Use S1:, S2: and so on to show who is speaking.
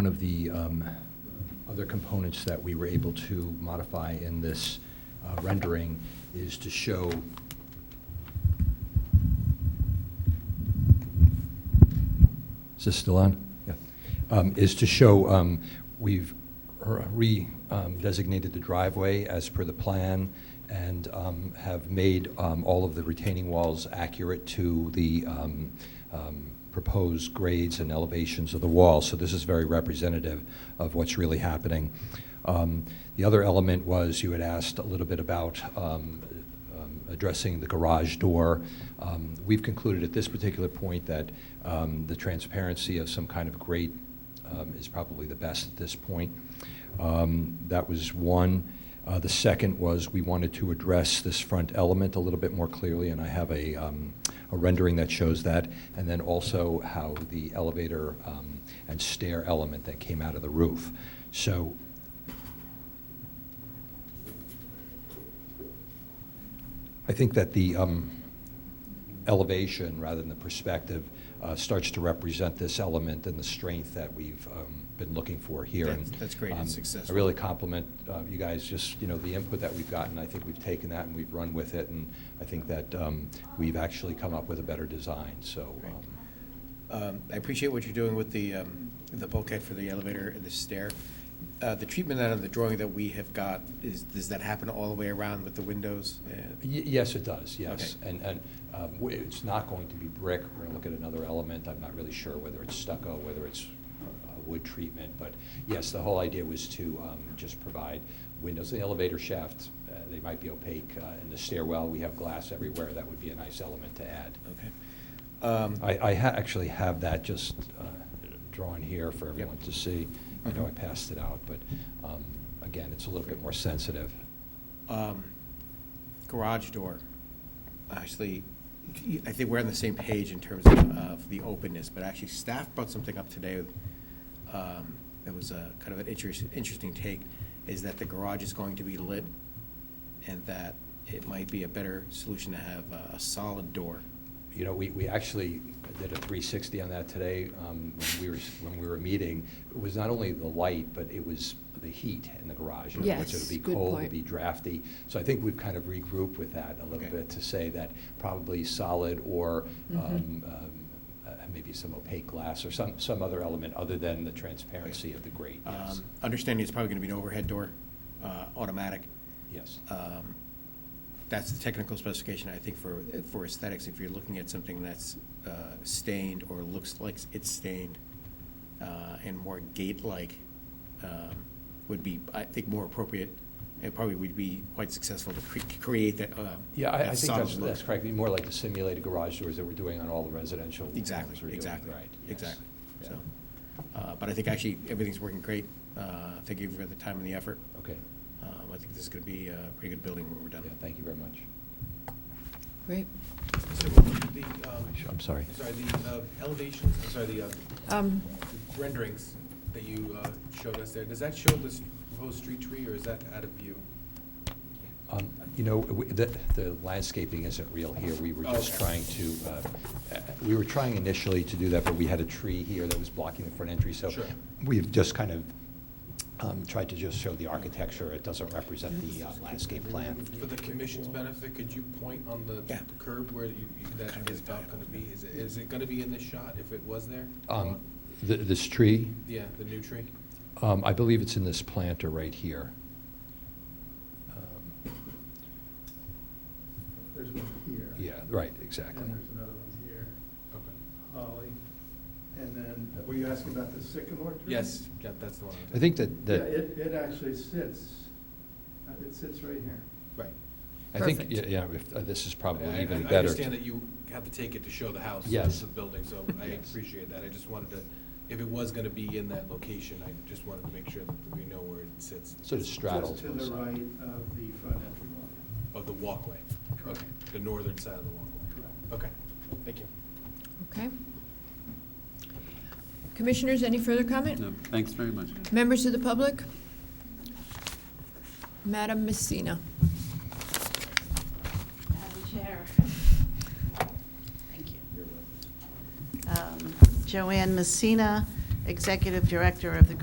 S1: one of the um, other components that we were able to modify in this uh, rendering is to show Is this still on? Yeah. Um, Is to show, um, we've re-designated the driveway as per the plan and um, have made um, all of the retaining walls accurate to the um, um, proposed grades and elevations of the wall. So this is very representative of what's really happening. Um, The other element was, you had asked a little bit about um, um, addressing the garage door. Um, We've concluded at this particular point that um, the transparency of some kind of grate um, is probably the best at this point. Um, That was one. Uh, The second was, we wanted to address this front element a little bit more clearly, and I have a um, a rendering that shows that, and then also how the elevator um, and stair element that came out of the roof. So I think that the um, elevation, rather than the perspective, uh, starts to represent this element and the strength that we've um, been looking for here. And,
S2: That's- that's great. It's
S1: um,
S2: successful.
S1: I really compliment uh, you guys, just, you know, the input that we've gotten. I think we've taken that and we've run with it, and I think that um, we've actually come up with a better design, so.
S2: Great.
S1: um,
S2: Um, I appreciate what you're doing with the, um, the bulkhead for the elevator and the stair. Uh, The treatment out of the drawing that we have got, is, does that happen all the way around with the windows? Uh,
S1: Y- Yes, it does, yes. And, and um, w- it's not going to be brick, we're gonna look at another element, I'm not really sure whether it's stucco, whether it's uh, wood treatment, but yes, the whole idea was to um, just provide windows, the elevator shaft, uh, they might be opaque, uh, in the stairwell, we have glass everywhere, that would be a nice element to add.
S2: Okay. Um,
S1: I, I ha- actually have that just uh, drawn here for everyone to see. I know I
S2: Mhm.
S1: passed it out, but um, again, it's a little bit more sensitive.
S2: um, Garage door, actually, I think we're on the same page in terms of, of the openness, but actually staff brought something up today um, that was a kind of an interest, interesting take, is that the garage is going to be lit and that it might be a better solution to have a, a solid door.
S1: you know, we, we actually did a 360 on that today um, when we were, when we were meeting. It was not only the light, but it was the heat in the garage. you know, which
S3: Yes,
S1: It would be
S3: good
S1: cold,
S3: point.
S1: it'd be drafty. So I think we've kind of regrouped with that a little
S2: Okay.
S1: bit to say that probably solid or
S3: Mhm.
S1: um, um, uh, maybe some opaque glass or some, some other element other than the transparency of the grate, yes.
S2: Um, Understanding it's probably going to be an overhead door, uh, automatic.
S1: Yes.
S2: Um, That's the technical specification, I think, for, for aesthetics. If you're looking at something that's uh, stained or looks like it's stained uh, and more gate-like um, would be, I think, more appropriate. It probably would be quite successful to cre- create that. uh,
S1: Yeah, I- I
S2: that
S1: think that's,
S2: solid look.
S1: that's correct. More like the simulated garage doors that we're doing on all the residential homes
S2: Exactly,
S1: we're doing,
S2: exactly,
S1: right, yes.
S2: exactly.
S1: Yeah.
S2: So, uh, But I think actually, everything's working great. Uh, Thank you for the time and the effort.
S1: Okay,
S2: Um, I think this is going to be a pretty good building when we're
S1: yeah,
S2: done.
S1: thank you very much.
S3: Great.
S4: So the, um,
S1: I'm sorry.
S4: sorry, the uh, elevations, I'm sorry, the uh,
S3: Um,
S4: renderings that you uh, showed us there, does that show this proposed street tree, or is that out of view?
S1: Um, You know, we- the the landscaping isn't real here. We were just
S4: Okay.
S1: trying to, uh, uh, we were trying initially to do that, but we had a tree here that was blocking the front entry, so
S4: Sure.
S1: we've just kind of um, tried to just show the architecture. It doesn't represent the uh, landscape plan.
S4: For the commission's benefit, could you point on the
S2: Yeah.
S4: curb where you, you- that is about gonna be? Is it, is it gonna be in this shot if it was there?
S1: Um, th- This tree,
S4: Yeah, the new tree?
S1: um, I believe it's in this planter right here. Um,
S5: There's one here.
S1: Yeah, right,
S5: And
S1: exactly.
S5: there's another one here,
S4: Okay.
S5: Holly. And then, were you asking about the sycamore tree?
S4: Yes, yeah, that's the one. I'm
S1: I think that,
S5: Yeah,
S1: that.
S5: it, it actually sits, uh, it sits right here.
S4: Right.
S1: I think,
S3: Perfect.
S1: yeah, yeah, if- uh, this is
S4: I- I-
S1: probably even
S4: I
S1: better.
S4: understand that you have to take it to show the house.
S1: Yes.
S4: The building, so I
S1: Yes.
S4: appreciate that. I just wanted to, if it was gonna be in that location, I just wanted to make sure that we know where it sits
S1: Sort of straddles.
S5: Just to the
S1: both
S5: right
S1: sides.
S5: of the front entry wall.
S4: of the walkway.
S5: Correct.
S4: Okay, the northern side of the walkway.
S5: Correct.
S4: Okay, thank you.
S3: okay. Commissioners, any further comment?
S6: No, thanks very much.
S3: Members of the public? Madam Messina.
S7: Madam Chair. Thank you. Um, Joanne Messina, executive director of the